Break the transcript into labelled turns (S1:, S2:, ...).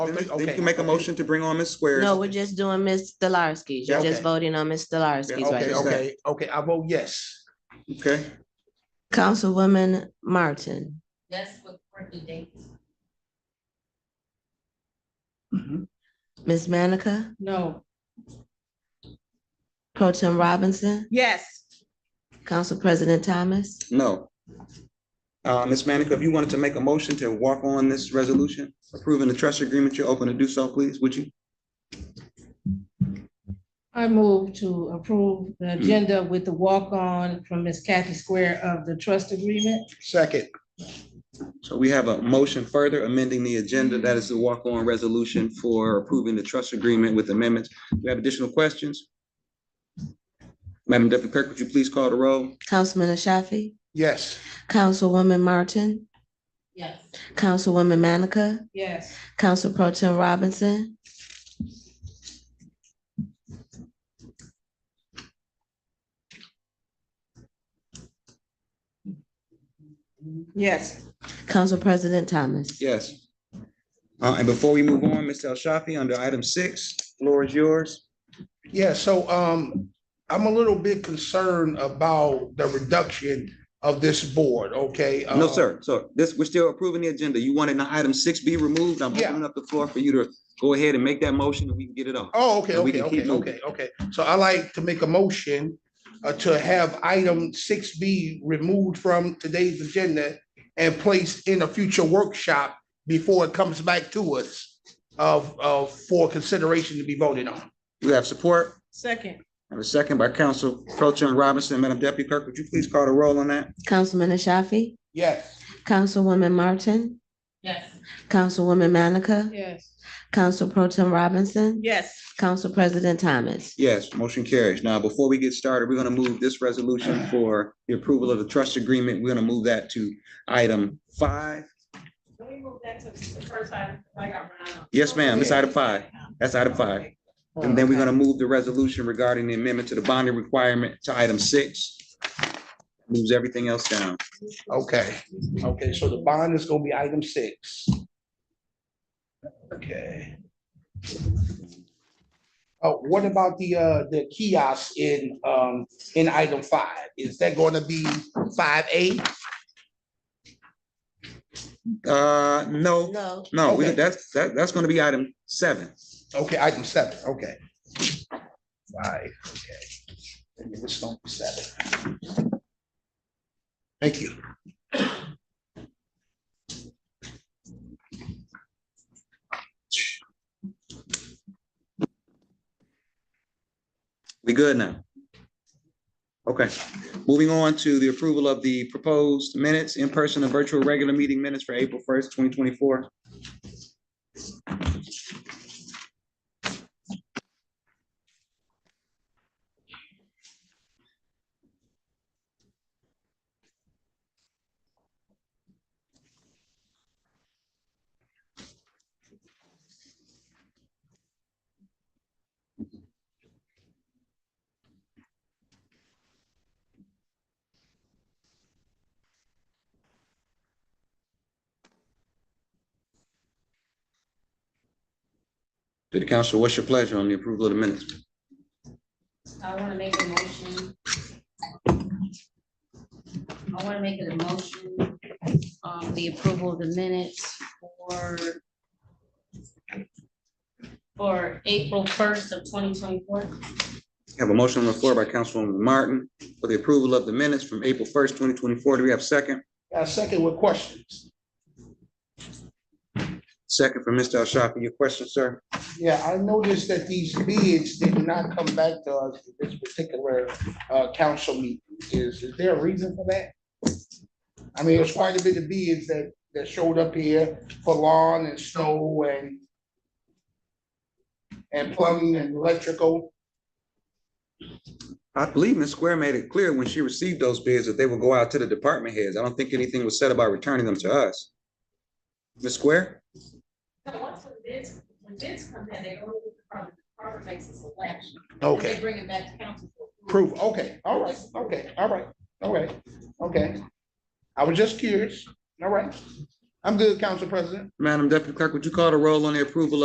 S1: Oh, three-
S2: Then you
S1: okay,
S2: can make a
S1: okay.
S2: motion to bring on Ms. Squares.
S3: No, we're just doing Ms. Delarski. You're
S1: Okay.
S3: just voting on Ms. Delarski right
S1: Okay,
S3: now.
S1: okay, okay, I vote yes.
S2: Okay,
S3: Councilwoman Martin,
S4: That's for the dates.
S3: Ms. Mm-hmm. Manica,
S4: No.
S3: Pro Tem Robinson,
S4: Yes.
S3: Council President Thomas.
S2: no. Uh, Ms. Manica, if you wanted to make a motion to walk on this resolution, approving the trust agreement, you're open to do so, please, would you?
S4: I move to approve the
S2: Mm.
S4: agenda with the walk-on from Miss Kathy Square of the trust agreement.
S1: Second,
S2: So we have a motion further amending the agenda. That is the walk-on resolution for approving the trust agreement with amendments. Do you have additional questions? Madam Deputy Clerk, would you please call the roll?
S3: Councilman Ashafi,
S1: yes.
S3: Councilwoman Martin,
S4: Yes.
S3: Councilwoman Manica,
S4: Yes.
S3: Council Pro Tem Robinson.
S4: Yes.
S3: Council President Thomas.
S2: Yes. Uh, and before we move on, Mr. El Shafi, under item six, floor is yours.
S1: Yeah, so um, I'm a little bit concerned about the reduction of this board, okay?
S2: No,
S1: Uh,
S2: sir. So this, we're still approving the agenda. You wanted an item six be removed. I'm
S1: Yeah.
S2: opening up the floor for you to go ahead and make that motion and we can get it off.
S1: Oh, okay,
S2: And we
S1: okay,
S2: can keep
S1: okay, okay, okay. So I like to make a motion uh, to have item six B removed from today's agenda and placed in a future workshop before it comes back to us of, of, for consideration to be voted on.
S2: Do we have support?
S4: Second.
S2: I have a second by Council Pro Tem Robinson. Madam Deputy Clerk, would you please call the roll on that?
S3: Councilman Ashafi,
S1: Yes.
S3: Councilwoman Martin,
S4: Yes.
S3: Councilwoman Manica,
S4: Yes.
S3: Council Pro Tem Robinson,
S4: Yes.
S3: Council President Thomas.
S2: Yes, motion carries. Now, before we get started, we're gonna move this resolution for the approval of the trust agreement. We're gonna move that to item five.
S5: Can we move that to the first item? I got run out.
S2: Yes, ma'am, it's item five. That's item five. And then we're gonna move the resolution regarding the amendment to the bonding requirement to item six. Moves everything else down.
S1: Okay, okay, so the bond is gonna be item six. Okay. Oh, what about the, uh, the kiosk in, um, in item five? Is that gonna be five A?
S2: Uh, no,
S3: No.
S2: no, we-
S1: Okay.
S2: that's, that, that's gonna be item seven.
S1: Okay, item seven, okay. Five, okay. Maybe this don't be seven. Thank you.
S2: We good now? Okay, moving on to the approval of the proposed minutes, in-person and virtual regular meeting minutes for April first, twenty twenty-four. City Council, what's your pleasure on the approval of the minutes?
S4: I want to make a motion. I want to make a motion on the approval of the minutes for for April first of twenty twenty-four.
S2: Have a motion on the floor by Councilwoman Martin for the approval of the minutes from April first, twenty twenty-four. Do we have a second?
S1: Got a second with questions?
S2: Second from Mr. Ashafi. Your question, sir?
S1: Yeah, I noticed that these bids did not come back to us at this particular uh, council meeting. Is, is there a reason for that? I mean, it was quite a bit of bids that, that showed up here for lawn and snow and and plumbing and electrical.
S2: I believe Ms. Square made it clear when she received those bids that they would go out to the department heads. I don't think anything was said about returning them to us. Ms. Square?
S5: So once the bids, when bids come in, they go to the department, the department makes a selection. and They
S1: Okay,
S5: bring it back to council. for approval.
S1: proof, okay, all right, okay, all right, all right, okay. I was just curious, all right. I'm good, Council President.
S2: Madam Deputy Clerk, would you call the roll on the approval